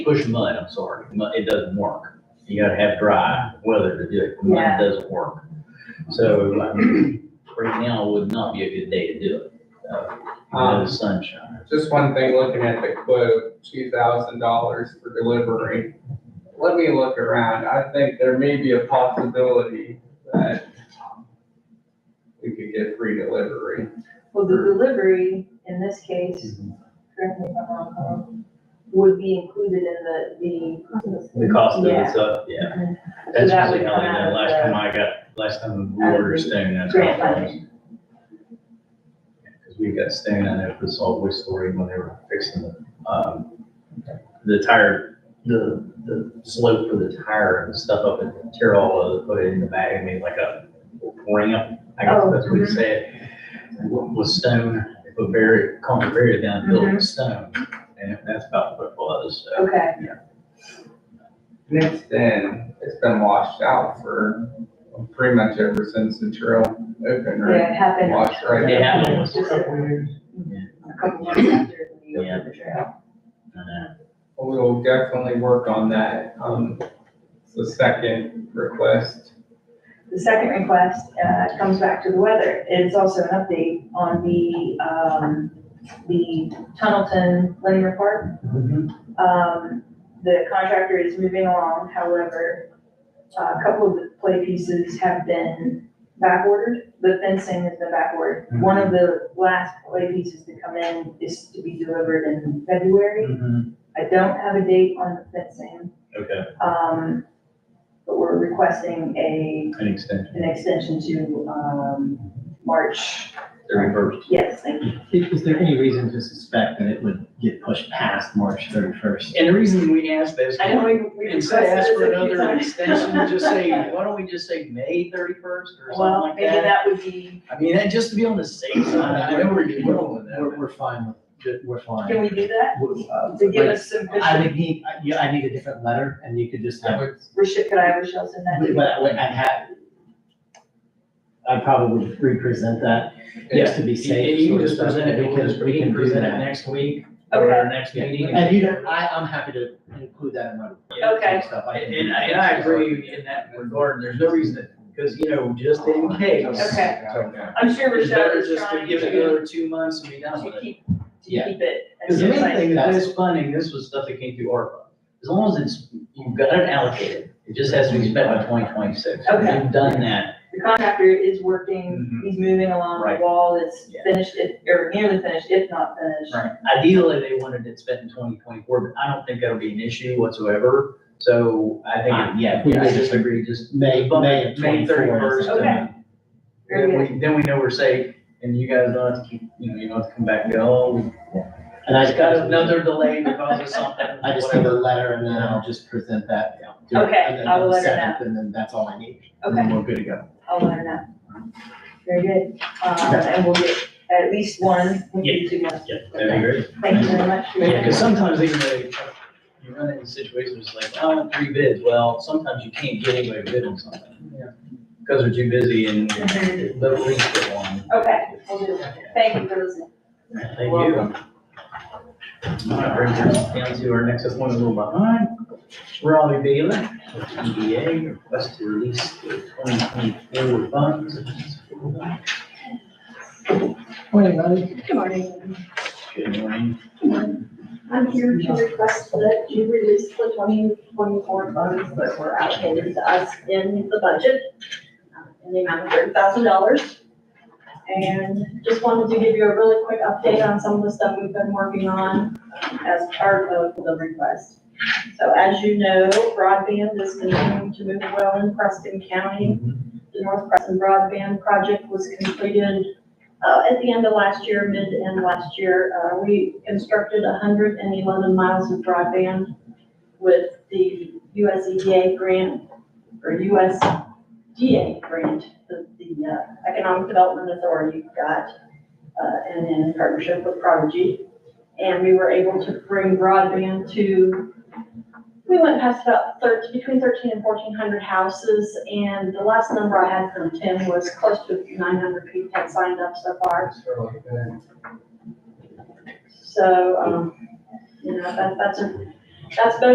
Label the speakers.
Speaker 1: push mud, I'm sorry, Mud- it doesn't work. You gotta have dry weather to do it, mud
Speaker 2: Yeah.
Speaker 1: doesn't work. So, like, right now would not be a good day to do it, uh, no
Speaker 3: Um,
Speaker 1: sunshine.
Speaker 3: Just one thing, looking at the quote, two thousand dollars for delivery. Let me look around. I think there may be a possibility that we could get free delivery.
Speaker 2: Well, the delivery, in this case, correct me if I'm wrong, Colin, would be included in the, the.
Speaker 1: The cost of
Speaker 2: Yeah.
Speaker 1: it's up, yeah.
Speaker 2: Mhm.
Speaker 1: That's
Speaker 2: So that would
Speaker 1: usually how they
Speaker 2: come
Speaker 1: did
Speaker 2: out
Speaker 1: it.
Speaker 2: of
Speaker 1: Last
Speaker 2: the-
Speaker 1: time I got, last time we
Speaker 2: Out of
Speaker 1: ordered
Speaker 2: the
Speaker 1: stone, that's how
Speaker 2: grant
Speaker 1: it was.
Speaker 2: funding.
Speaker 1: Because we got stone out there for the salt waste story when they were fixing the, um, the tire, the, the slope for the tire and stuff up and tear all of it, put it in the bag, and made like a ramp, I guess
Speaker 2: Oh,
Speaker 1: that's what you say. With stone, they put barrier, concrete barrier down, built with stone, and that's about what it was, so.
Speaker 2: Mm-hmm. Okay,
Speaker 3: And it's been, it's been washed out for pretty much ever since the trail opened, right?
Speaker 2: yeah, it happened.
Speaker 3: Washed right
Speaker 1: It
Speaker 3: out.
Speaker 1: happened,
Speaker 2: Just a a couple months after we opened the trail.
Speaker 1: I know.
Speaker 3: We'll definitely work on that. Um, it's the second request.
Speaker 2: The second request, uh, comes back to the weather. It's also an update on the, um, the Tunnelton linear park. Um, the contractor is moving along, however, uh, a couple of the play pieces have been backordered. The fencing has been backordered. One of the last play pieces to come in is to be delivered in February.
Speaker 1: Mhm.
Speaker 2: I don't have a date on the fencing,
Speaker 1: Okay,
Speaker 2: um, but we're requesting a,
Speaker 1: an extension,
Speaker 2: an extension to, um, March.
Speaker 1: thirty first.
Speaker 2: Yes, thank you.
Speaker 4: Is there any reason to suspect that it would get pushed past March thirty-first?
Speaker 1: And the reason we asked that is.
Speaker 2: I know we, we
Speaker 1: Instead of asking
Speaker 2: requested this
Speaker 1: for
Speaker 2: a few
Speaker 1: another
Speaker 2: times.
Speaker 1: extension, just say, why don't we just say May thirty-first or something
Speaker 2: Well,
Speaker 1: like
Speaker 2: maybe
Speaker 1: that?
Speaker 2: that would be.
Speaker 1: I mean, that just to be on the safe side, I know we're dealing with
Speaker 4: We're,
Speaker 1: that.
Speaker 4: we're fine, with- we're fine.
Speaker 2: Can we do that?
Speaker 4: We're, uh,
Speaker 2: To give
Speaker 4: like,
Speaker 2: us some,
Speaker 4: I would need, I- yeah, I need a different letter and you could just
Speaker 3: I
Speaker 4: have,
Speaker 3: would
Speaker 2: Rashid, could I have Rochelle send that? to
Speaker 4: but
Speaker 2: you?
Speaker 4: I would- I'd have, I'd probably represent that, just to be safe.
Speaker 1: And you
Speaker 4: sort
Speaker 1: can
Speaker 4: of
Speaker 1: just present
Speaker 4: stuff,
Speaker 1: it, we can
Speaker 4: because
Speaker 1: just, we can
Speaker 4: do
Speaker 1: present it
Speaker 4: that.
Speaker 1: next week or our next
Speaker 4: Yeah.
Speaker 1: meeting.
Speaker 4: And you don't, I, I'm happy to include that in my.
Speaker 1: Yeah.
Speaker 2: Okay.
Speaker 4: Stuff I can
Speaker 1: And,
Speaker 4: do.
Speaker 1: and I- and I agree in that regard, there's no reason, to because, you know, just in case.
Speaker 2: Okay.
Speaker 3: Okay.
Speaker 2: I'm sure
Speaker 1: It's
Speaker 2: Rochelle
Speaker 1: better
Speaker 2: is
Speaker 1: just to
Speaker 2: trying
Speaker 1: give it
Speaker 2: to,
Speaker 1: another two months and be done with
Speaker 2: to
Speaker 1: it.
Speaker 2: keep, to
Speaker 4: Yeah.
Speaker 2: keep it.
Speaker 1: Because the main
Speaker 2: concise.
Speaker 1: thing is
Speaker 4: That's-
Speaker 1: this funding, this was stuff that came through ARPA. As long as it's, you've got it allocated, it just has to be spent by twenty twenty-six.
Speaker 2: Okay.
Speaker 1: You've done that.
Speaker 2: The contractor is working, he's moving along, the
Speaker 1: Mm-hmm. Right.
Speaker 2: wall is
Speaker 1: Yeah.
Speaker 2: finished, if, or nearly finished, if not finished.
Speaker 1: Ideally, they wanted it spent in twenty twenty-four, but I don't think that'll be an issue whatsoever. So I
Speaker 4: Fine,
Speaker 1: think,
Speaker 4: yeah,
Speaker 1: yeah,
Speaker 4: we
Speaker 1: I
Speaker 4: just-
Speaker 1: disagree, just.
Speaker 4: May,
Speaker 1: bump
Speaker 4: May
Speaker 1: it
Speaker 4: of twenty-four. is
Speaker 1: 31st.
Speaker 2: Okay. Very
Speaker 1: Then we, then we know we're safe and you guys don't have to keep, you know, you don't have to come back and go, oh, we
Speaker 4: And I
Speaker 1: just
Speaker 4: just
Speaker 1: got
Speaker 4: gotta
Speaker 1: another delay because of something.
Speaker 4: I just need
Speaker 1: whatever.
Speaker 4: a letter and then I'll just present that.
Speaker 2: Yeah. Okay, I will let her know.
Speaker 4: And then that's all I need. And
Speaker 2: Okay,
Speaker 4: then we're good to go.
Speaker 2: I'll let her know. Very good, um, and we'll get at least one, maybe two months.
Speaker 1: Yeah, that'd be great.
Speaker 2: Thank you very much. for
Speaker 1: Yeah, because
Speaker 2: that.
Speaker 1: sometimes even though you- you run into situations like, I want three bids, well, sometimes you can't get anybody to bid on something. Because they're too busy and they'll at least get one.
Speaker 2: Okay, we'll do that. Thank you for listening.
Speaker 1: Thank you. All right, Brings us down to our next one, a little behind. Robbie Bailey, EDA, request to release the twenty twenty-four funds.
Speaker 4: Morning, buddy.
Speaker 5: Good morning.
Speaker 1: Good morning.
Speaker 5: I'm here to request that you release the twenty twenty-four funds that were allocated to us in the budget uh, in the amount of thirty thousand dollars. And just wanted to give you a really quick update on some of the stuff we've been working on uh, as part of the request. So as you know, broadband is continuing to move well in Preston County. The North Preston Broadband Project was completed uh, at the end of last year, mid and last year, uh, we constructed hundred and eleven miles of broadband with the US EDA grant, or USDA grant that the uh, Economic Development Authority got, uh, and in partnership with Prodigy. And we were able to bring broadband to, we went past about thirteen, between thirteen and fourteen hundred houses, and the last number I had from Tim was close to nine hundred people had signed up so far.
Speaker 3: So, uh,
Speaker 5: So, um, you know, that, that's a, that's been